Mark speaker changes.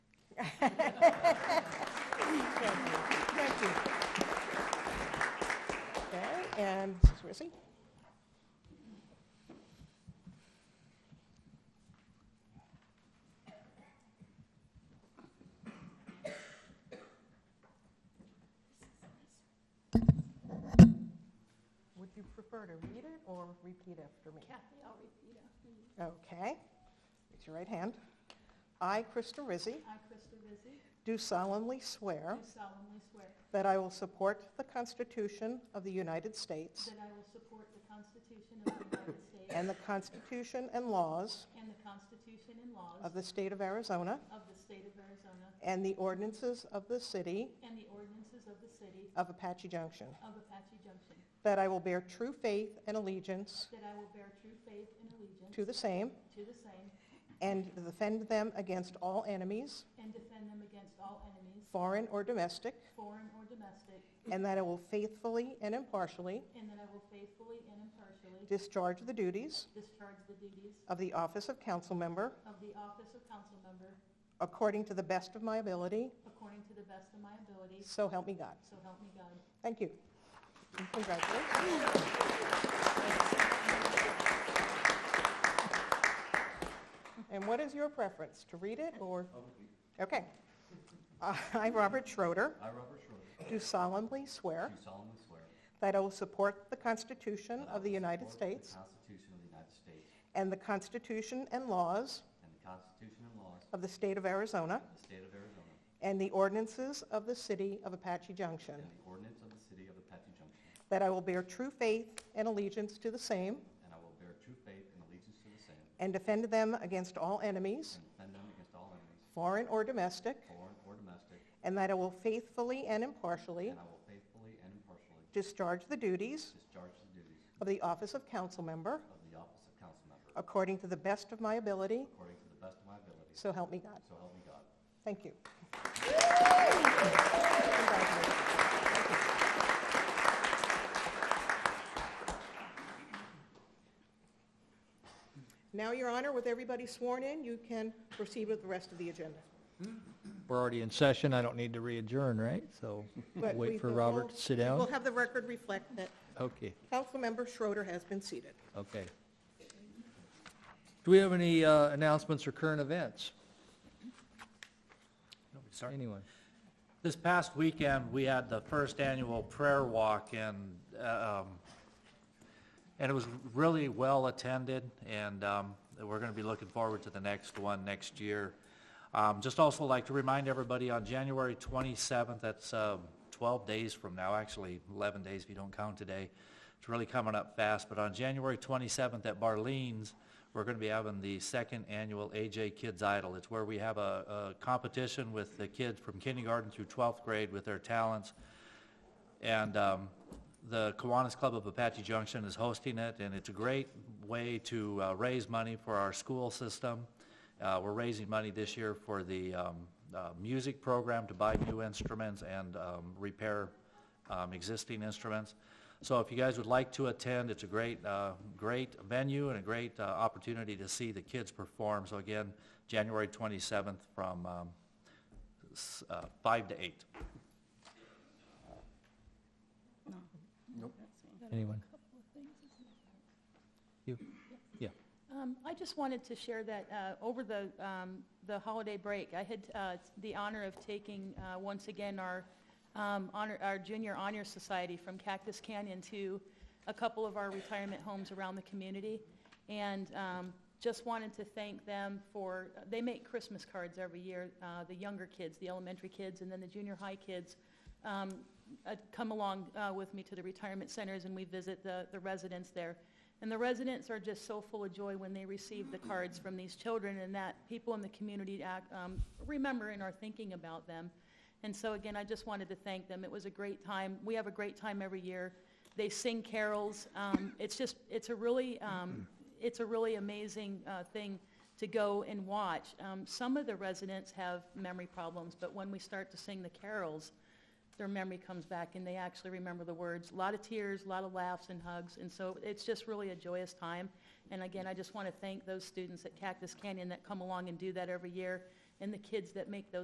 Speaker 1: prefer to read it or repeat after me?
Speaker 2: Kathy, I'll repeat after you.
Speaker 1: Okay. Raise your right hand. I, Krista Rizzi,
Speaker 2: I, Krista Vizzi,
Speaker 1: do solemnly swear
Speaker 2: do solemnly swear
Speaker 1: that I will support the Constitution of the United States
Speaker 2: that I will support the Constitution of the United States
Speaker 1: and the Constitution and laws
Speaker 2: and the Constitution and
Speaker 1: of
Speaker 2: laws
Speaker 1: the State of Arizona
Speaker 2: of the state of Arizona
Speaker 1: and the ordinances of the City
Speaker 2: and the ordinances of the city
Speaker 1: of Apache Junction,
Speaker 2: of Apache Junction,
Speaker 1: that I will bear true faith and allegiance
Speaker 2: that I will bear true faith and allegiance
Speaker 1: to the same
Speaker 2: to the same
Speaker 1: and defend them against all enemies,
Speaker 2: and defend them against all enemies,
Speaker 1: foreign or domestic,
Speaker 2: foreign or domestic,
Speaker 1: and that I will faithfully and impartially
Speaker 2: and that I will faithfully and impartially
Speaker 1: discharge the duties
Speaker 2: discharge the duties
Speaker 1: of the office of council member
Speaker 2: of the office of council member
Speaker 1: according to the best of my ability,
Speaker 2: according to the best of my ability,
Speaker 1: so help me God.
Speaker 2: so help me God.
Speaker 1: Thank you. And Congratulations. And what is your preference, to read it or? Okay. Uh, I, Robert Schroeder,
Speaker 3: I, Robert Schroeder,
Speaker 1: do solemnly swear
Speaker 3: do solemnly swear.
Speaker 1: that I will support the Constitution
Speaker 3: that I
Speaker 1: of the
Speaker 3: will
Speaker 1: United
Speaker 3: support
Speaker 1: States
Speaker 3: The Constitution of the United States
Speaker 1: and the Constitution and laws
Speaker 3: and the Constitution and laws
Speaker 1: of the State of Arizona
Speaker 3: of the State of Arizona
Speaker 1: and the ordinances of the City of Apache Junction,
Speaker 3: and the ordinance of the City of Apache Junction,
Speaker 1: that I will bear true faith and allegiance to the same
Speaker 3: and I will bear true faith and allegiance to the same
Speaker 1: and defend them against all enemies,
Speaker 3: and defend them against all enemies,
Speaker 1: foreign or domestic,
Speaker 3: foreign or domestic,
Speaker 1: and that I will faithfully and impartially
Speaker 3: and I will faithfully and impartially
Speaker 1: discharge the duties
Speaker 3: discharge the duties
Speaker 1: of the office of council member
Speaker 3: of the office of council member
Speaker 1: according to the best of my ability,
Speaker 3: according to the best of my ability.
Speaker 1: so help me God.
Speaker 3: So help me God.
Speaker 1: Thank you. Now, Your Honor, with everybody sworn in, you can proceed with the rest of the agenda.
Speaker 4: We're already in session, I don't need to re-adjourn, right? So
Speaker 1: But we
Speaker 4: wait for
Speaker 1: will-
Speaker 4: Robert to sit
Speaker 1: We'll
Speaker 4: down?
Speaker 1: have the record reflect that
Speaker 4: Okay,
Speaker 1: Councilmember Schroeder has been seated.
Speaker 4: okay. Do we have any uh, announcements or current events?
Speaker 5: Sorry.
Speaker 4: Anyone?
Speaker 5: This past weekend, we had the first annual prayer walk and, uh, um, and it was really well attended and, um, we're going to be looking forward to the next one next year. Um, just also like to remind everybody on January 27th, that's, um, 12 days from now, actually 11 days if you don't count today. It's really coming up fast, but on January 27th at Barleans, we're going to be having the second annual AJ Kids Idol. It's where we have a, a competition with the kids from kindergarten through 12th grade with their talents. And um, the Kiwanis Club of Apache Junction is hosting it, and it's a great way to uh, raise money for our school system. Uh, We're raising money this year for the um, uh, music program to buy new instruments and um, repair um, existing instruments. So if you guys would like to attend, it's a great, uh, great venue and a great uh, opportunity to see the kids perform. So again, January 27th from um, s- uh, 5 to 8.
Speaker 4: Anyone? You? Yeah.
Speaker 2: Um, I just wanted to share that uh, over the, um, the holiday break, I had uh, the honor of taking, uh, once again, our um, honor, our Junior Honor Society from Cactus Canyon to a couple of our retirement homes around the community. And um, just wanted to thank them for, they make Christmas cards every year, uh, the younger kids, the elementary kids, and then the junior high kids um, uh, come along uh, with me to the retirement centers, and we visit the the residents there. And the residents are just so full of joy when they receive the cards from these children and that people in the community act, um, remember and are thinking about them. And so again, I just wanted to thank them. It was a great time. We have a great time every year. They sing carols. Um, it's just, it's a really, um, it's a really amazing, uh, thing to go and watch. Um, some of the residents have memory problems, but when we start to sing the carols, their memory comes back and they actually remember the words. A lot of tears, a lot of laughs and hugs, and so it's just really a joyous time. And again, I just want to thank those students at Cactus Canyon that come along and do that every year, and the kids that make those